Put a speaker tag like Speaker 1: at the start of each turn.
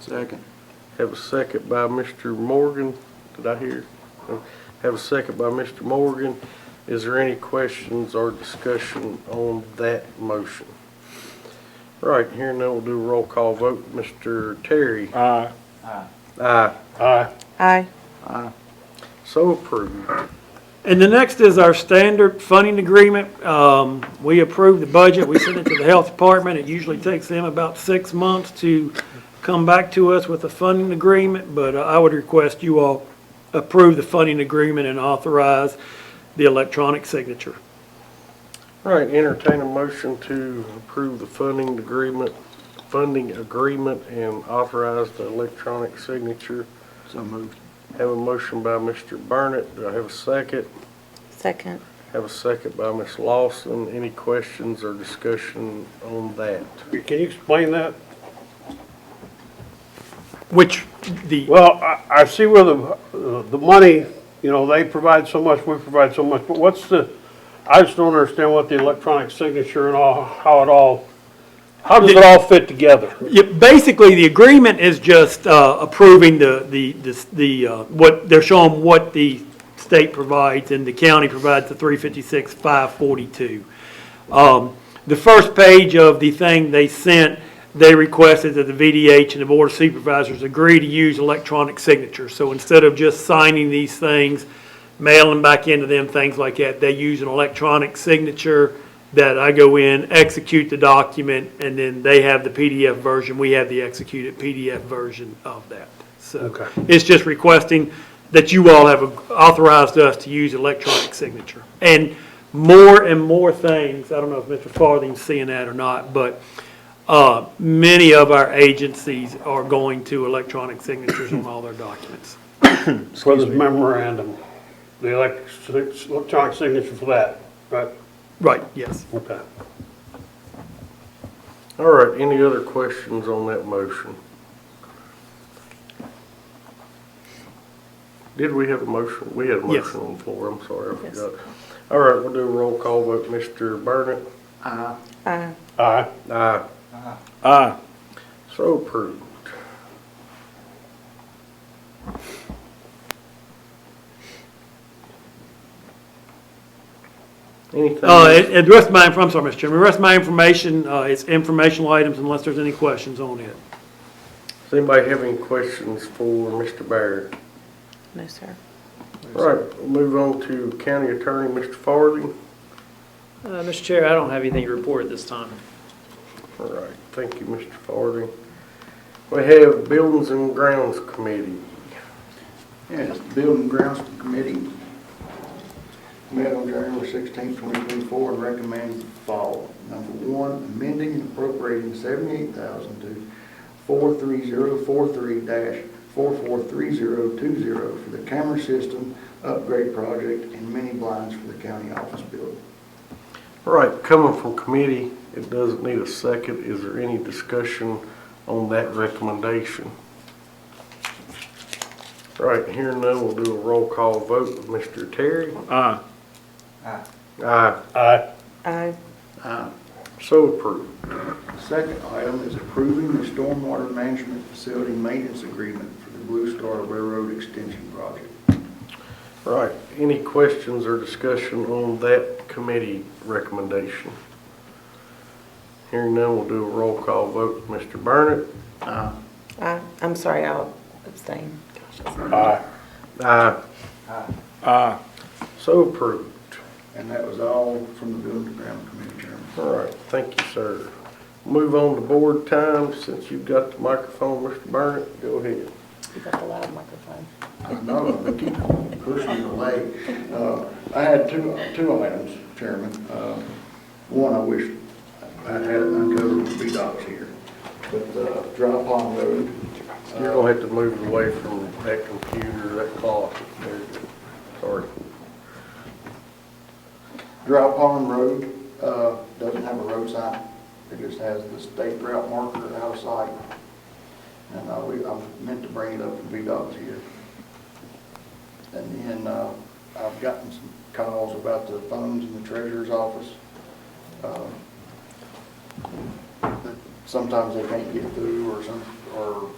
Speaker 1: Second.
Speaker 2: Have a second by Mr. Morgan. Did I hear? No. Have a second by Mr. Morgan. Is there any questions or discussion on that motion? Right, here now we'll do a roll call vote. Mr. Terry?
Speaker 3: Aye.
Speaker 2: Aye.
Speaker 3: Aye.
Speaker 4: Aye.
Speaker 2: So approved.
Speaker 3: And the next is our standard funding agreement. Um, We approve the budget, we send it to the health department. It usually takes them about six months to come back to us with a funding agreement, but I would request you all approve the funding agreement and authorize the electronic signature.
Speaker 2: Right, entertain a motion to approve the funding agreement, funding agreement and authorize the electronic signature.
Speaker 1: So moved.
Speaker 2: Have a motion by Mr. Burnett. Do I have a second?
Speaker 4: Second.
Speaker 2: Have a second by Ms. Lawson. Any questions or discussion on that?
Speaker 5: Can you explain that?
Speaker 3: Which the,
Speaker 5: Well, I, I see where the, the money, you know, they provide so much, we provide so much, but what's the, I just don't understand what the electronic signature and all, how it all, how does it all fit together?
Speaker 3: yeah, basically, the agreement is just uh, approving the, the, the- the, uh, what, they're showing what the state provides and the county provides the 356, 542. Um, The first page of the thing they sent, they requested that the VDH and the Board of Supervisors agree to use electronic signatures. So instead of just signing these things, mailing back into them, things like that, they use an electronic signature that I go in, execute the document, and then they have the PDF version, we have the executed PDF version of that. So it's just requesting that you all have authorized us to use electronic signature. And more and more things, I don't know if Mr. Farthing's seeing that or not, but uh, many of our agencies are going to electronic signatures on all their documents.
Speaker 5: For this memorandum, the elec- electronic signature for that, right?
Speaker 3: Right, yes.
Speaker 5: Okay.
Speaker 2: All right, any other questions on that motion? Did we have a motion? We had a
Speaker 3: Yes.
Speaker 2: motion on the floor, I'm sorry, I
Speaker 4: Yes.
Speaker 2: forgot. All right, we'll do a roll call vote. Mr. Burnett?
Speaker 1: Aye.
Speaker 4: Aye.
Speaker 5: Aye.
Speaker 2: Aye.
Speaker 3: Aye.
Speaker 2: So approved. Anything?
Speaker 3: Uh, and- and the rest of my, I'm sorry, Mr. Chairman, the rest of my information, uh, it's informational items unless there's any questions on it.
Speaker 2: Does anybody have any questions for Mr. Barrett?
Speaker 4: No, sir.
Speaker 2: All right, we'll move on to County Attorney, Mr. Farthing.
Speaker 6: Uh, Mr. Chair, I don't have anything to report at this time.
Speaker 2: All right, thank you, Mr. Farthing. We have Buildings and Grounds Committee.
Speaker 1: Yes, Building Grounds Committee met on January 16, 2024, and recommends the following. Number one, amending and appropriating 78000 to 43043-443020 for the camera system upgrade project and mini blinds for the county office building.
Speaker 2: All right, coming from committee, it doesn't need a second. Is there any discussion on that recommendation? All right, here and now, we'll do a roll call vote. Mr. Terry?
Speaker 3: Aye.
Speaker 2: Aye.
Speaker 5: Aye.
Speaker 4: Aye.
Speaker 1: Aye.
Speaker 2: So approved.
Speaker 1: The Second item is approving the stormwater management facility maintenance agreement for the Blue Star Railroad Extension Project.
Speaker 2: All right, any questions or discussion on that committee recommendation? Here and now, we'll do a roll call vote. Mr. Burnett?
Speaker 1: Aye.
Speaker 4: Aye. I'm sorry, I'll abstain. Gosh, that's-
Speaker 5: Aye.
Speaker 2: Aye. Aye. So approved.
Speaker 1: And that was all from the Building and Ground Committee Chairman.
Speaker 2: All right, thank you, sir. Move on to board time, since you've got the microphone, Mr. Burnett, go ahead.
Speaker 4: You got the loud microphone.
Speaker 1: I know, they keep pushing it away. Uh, I had two, two items, Chairman. Uh, One, I wish I'd had it uncovered with B-Docs here, but uh, Dry Pond Road. uh,
Speaker 2: You're gonna have to move away from that computer, that clock. There you go. Sorry.
Speaker 1: Dry Pond Road, uh, doesn't have a road sign. It just has the state route marker out of sight. And I, we, I meant to bring it up to VDOT's here. And then, uh, I've gotten some calls about the phones in the treasurer's office. uh, that Sometimes they can't get through or some, or